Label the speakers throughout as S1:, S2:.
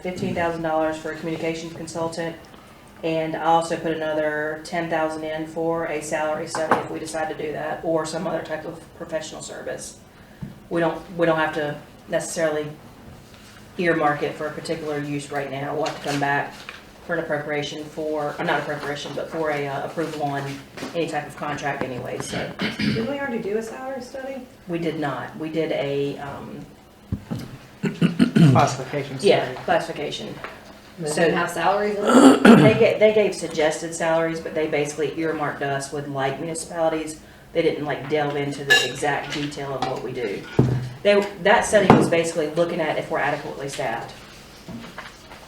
S1: fifteen thousand dollars for a communications consultant. And I also put another ten thousand in for a salary study if we decide to do that, or some other type of professional service. We don't, we don't have to necessarily earmark it for a particular use right now. We'll have to come back for an appropriation for, uh, not appropriation, but for a uh, approval on any type of contract anyway, so.
S2: Didn't we already do a salary study?
S1: We did not. We did a, um,
S3: Hmm.
S4: Classification
S1: yeah,
S4: study.
S1: classification.
S2: Does
S1: So-
S2: it have salaries in it?
S1: They gave, they gave suggested salaries, but they basically earmarked us with like municipalities. They didn't like delve into the exact detail of what we do. They, that study was basically looking at if we're adequately staffed.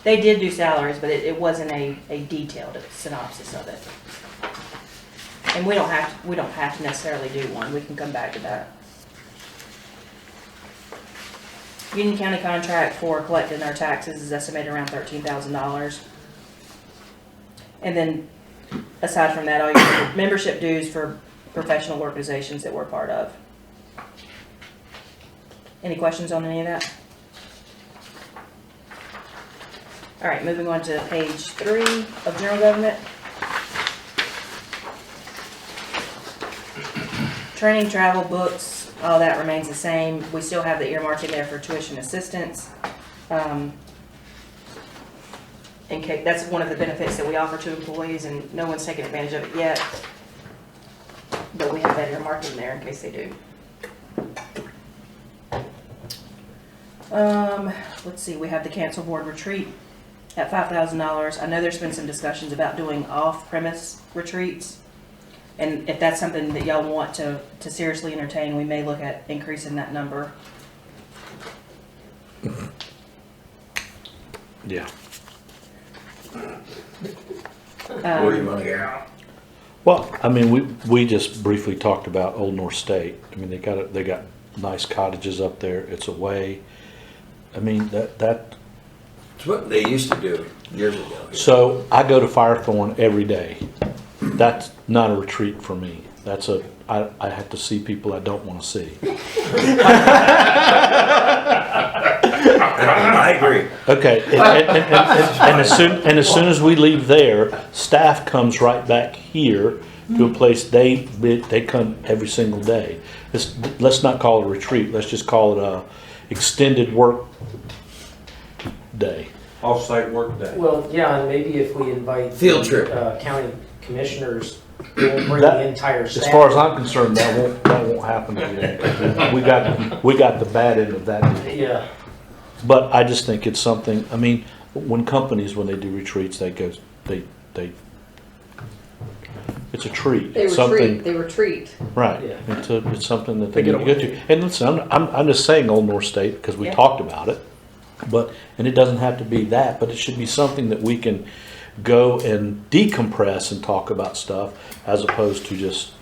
S1: They did do salaries, but it, it wasn't a, a detailed synopsis of it. And we don't have, to- we don't have to necessarily do one. We can come back to that. Union County contract for collecting our taxes is estimated around thirteen thousand dollars. And then, aside from that, all your membership dues for professional organizations that we're part of. Any questions on any of that? All right, moving on to page three of general government. Training, travel, books, all that remains the same. We still have the earmarking there for tuition assistance. Um, in case, that's one of the benefits that we offer to employees, and no one's taken advantage of it yet. But we have that earmarked in there in case they do. Um, let's see, we have the cancel board retreat at five thousand dollars. I know there's been some discussions about doing off-premise retreats. And if that's something that y'all want to, to seriously entertain, we may look at increasing that number.
S5: Yeah.
S1: Um,
S3: want to go?
S5: Well, I mean, we, we just briefly talked about Old North State. I mean, they got, a- they got nice cottages up there. It's away. I mean, that, that,
S3: It's what they used to do years ago.
S5: so I go to Firethorn every day. That's not a retreat for me. That's a, I, I have to see people I don't want to see.
S3: I agree.
S5: Okay, and, and, and, and- and as soon, and as soon as we leave there, staff comes right back here to a place they, they come every single day. Let's, let's not call it a retreat, let's just call it a extended work day.
S6: Off-site workday.
S4: Well, yeah, and maybe if we invite.
S3: Field trip.
S4: uh, County commissioners, we'll bring
S5: That-
S4: the entire staff.
S5: As far as I'm concerned, that won't, that won't happen again. We got, we got the bad end of that deal.
S4: Yeah,
S5: But I just think it's something, I mean, when companies, when they do retreats, they go, they, they, it's a treat.
S2: They
S5: It's something-
S2: retreat, they retreat.
S5: Right,
S4: Yeah.
S5: it's, a- it's something that
S4: They
S5: they need
S4: get
S5: to get
S4: away.
S5: to. And listen, I'm, I'm, I'm just saying Old North State, because we
S1: Yeah.
S5: talked about it. But, and it doesn't have to be that, but it should be something that we can go and decompress and talk about stuff as opposed to just,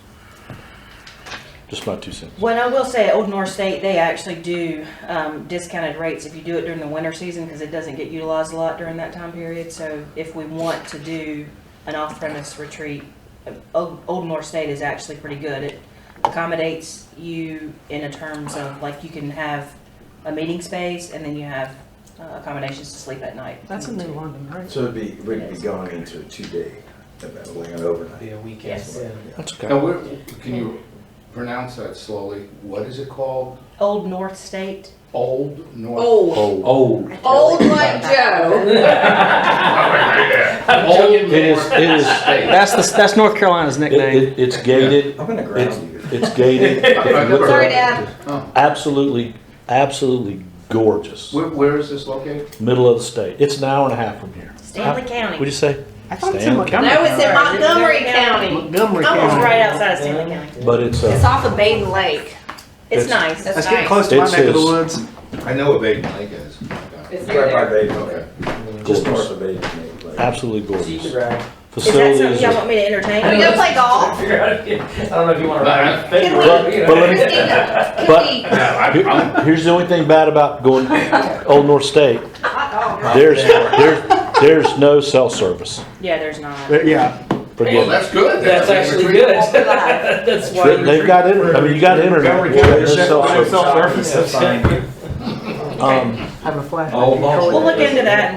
S5: just my two cents.
S1: Well, I will say, at Old North State, they actually do um, discounted rates if you do it during the winter season, because it doesn't get utilized a lot during that time period. So if we want to do an off-premise retreat, uh, Old Old North State is actually pretty good. It accommodates you in a terms of, like, you can have a meeting space, and then you have uh, accommodations to sleep at night.
S4: that's in New London, right?
S7: So it'd be, we'd be going into a two-day, event, like an overnight.
S4: Be a weekend.
S1: Yes.
S4: yeah.
S5: That's okay.
S8: Now, what, can you pronounce that slowly? What is it called?
S1: Old North State,
S8: Old North?
S2: Old,
S8: Old.
S2: old like Joe.
S8: Old
S5: It is, it is, it-
S4: That's the, that's North Carolina's nickname.
S5: it- it's gated,
S7: I'm gonna ground
S5: it's,
S7: you.
S5: it's gated. If you look
S2: Sorry,
S5: at it,
S2: Dad.
S5: Absolutely, absolutely gorgeous,
S8: Where, where is this located?
S5: middle of the state. It's an hour and a half from here.
S1: Stanley
S5: What'd you
S1: County.
S5: say?
S4: I thought it's in
S5: Stanley
S4: Montgomery.
S2: No, it's in Montgomery
S1: Montgomery
S2: County.
S4: Montgomery
S2: Almost
S4: County.
S1: right outside of Stanley
S4: Yeah.
S5: But it's
S2: It's
S5: a,
S2: off of Baden Lake.
S1: It's
S5: It's-
S1: nice.
S2: That's
S4: Let's get
S2: nice.
S4: close to my
S5: It
S4: neck of the
S5: says-
S4: woods.
S8: I know what Baden Lake is.
S2: It's near
S7: Right by
S2: there.
S7: Baden, okay. Just north of Baden, maybe, like-
S5: absolutely
S4: So you could
S5: gorgeous.
S4: ride.
S1: Is that something
S5: Facilities,
S1: y'all
S5: are-
S1: want me to entertain?
S2: We go play golf.
S4: Figure out if you- I don't know if you want to
S8: Nah.
S4: ride. Figure
S2: Can we-
S4: out, you know.
S5: But let me-
S2: Christina,
S5: But-
S2: Cookie,
S5: Here- here's the only thing bad about going Old North State,
S2: hot dog.
S5: there's, there's, there's no cell service.
S1: Yeah, there's not.
S4: Yeah,
S8: Well,
S5: Forget it.
S8: that's good.
S4: that's
S8: a
S4: actually
S8: retreat.
S4: good. That's why.
S5: They- They've got internet, I mean, you got internet,
S6: Montgomery
S5: but
S6: County
S5: there's no cell
S6: Sheriff's
S5: service.
S6: Office.
S7: Fine.
S5: Um,
S4: Having a flashlight.
S6: Oh,
S4: Control
S1: We'll look into that